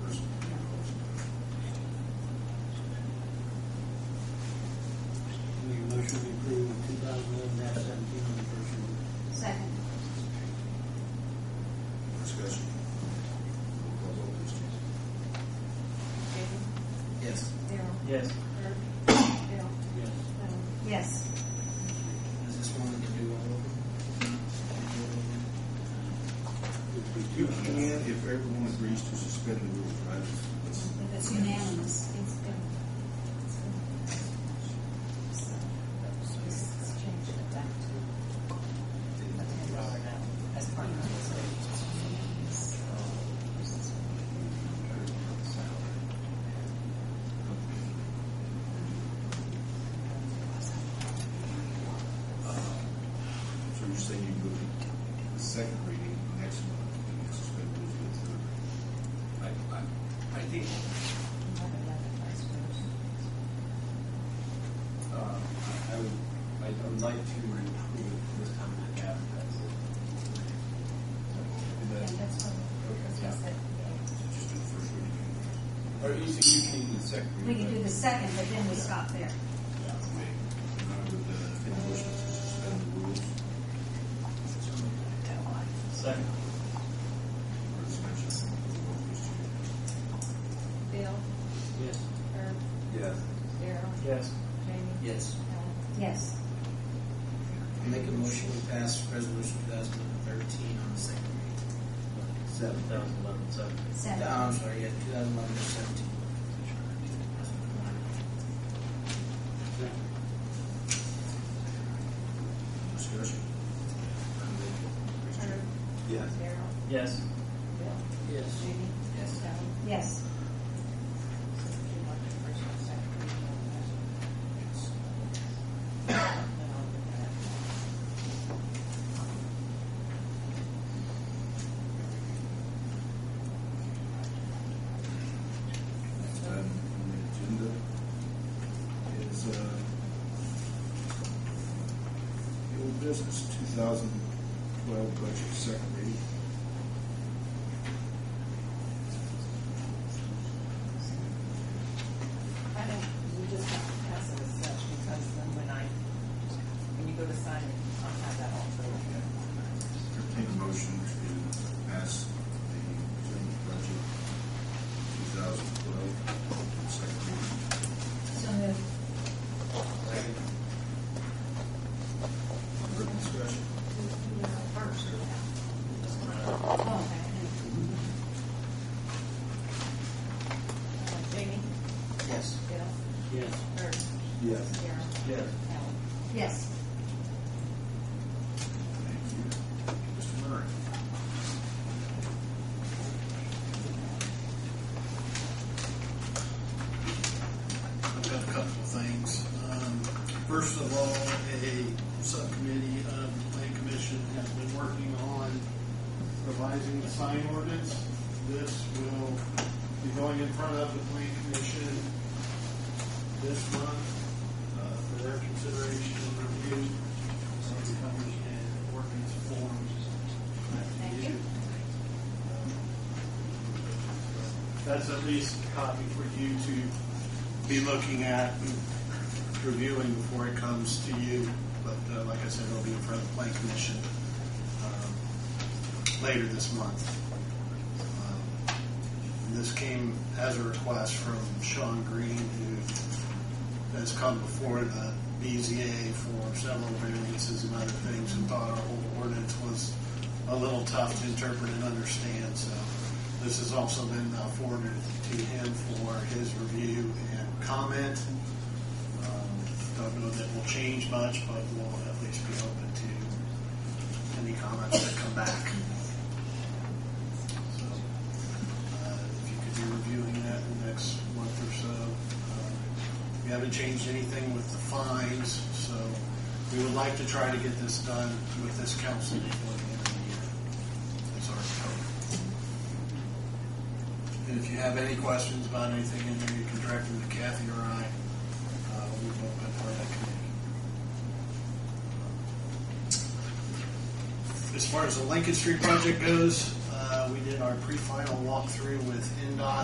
Yes. Or, Bill? Yes. Um, Yes. Is this one to do all You can if everyone agrees to suspend the rules, right? That's- It's unanimous. It's been. So, Let's change it back to. As part of this. So you're saying you go to the second reading next month and then suspend the rules for the I, third? I, I think, uh, I I would, I I would like to improve it this time to have that. And then, so just do the first reading. Or you see, you can do the second. We can do the second, but then we stop there. Yeah. Okay. And I would, uh, make a motion to suspend the rules Second. for suspension. Bill, Yes. Herb, Yes. Daryl, Yes. Jamie, Yes. Helen. Yes. Make a motion to pass resolution two thousand eleven thirteen on the second reading. Seven. thousand eleven seventeen. Seven. No, I'm sorry, yeah, two thousand eleven seventeen. Discussion. Herb, Yes. Daryl, Yes. Bill, Yes. Jamie, Yes. Helen. Yes. So if you want the first and second reading on that. Then I'll do that. Next item on the agenda is, uh, the old business two thousand twelve budget second reading. I think we just have to pass it as such because then when I, when you go to sign it, I'll have that also. Entertain a motion to pass the presented budget two thousand twelve second reading. So moved. Further discussion? First. Oh, Jamie, Yes. Bill, Yes. Herb, Yes. Daryl, Yes. Helen. yes. Thank you. Mr. Murray? I've got a couple of things. Um, First of all, a subcommittee of the Plan Commission has been working on revising the sign ordinance. This will be going in front of the Plan Commission this month uh, for their consideration and review. So it comes in ordinance forms. Um, Thank you. That's at least a copy for you to be looking at and reviewing before it comes to you. But uh, like I said, it'll be in front of the Plan Commission um, later this month. Um, and This came as a request from Sean Green, who has come before the BZA for several variances and other things, and thought our old ordinance was a little tough to interpret and understand, so this has also been uh, forwarded to him for his review and comment. Um, Don't know that will change much, but we'll at least be open to any comments that come back. So, uh, if you could be reviewing that in the next month or so. Uh, We haven't changed anything with the fines, so we would like to try to get this done with this council before the end of the year. That's our hope. And if you have any questions about anything in there, you can direct them to Kathy or I. Uh, We will be part of that committee. As far as the Lincoln Street project goes, uh, we did our pre-final walkthrough with NDOT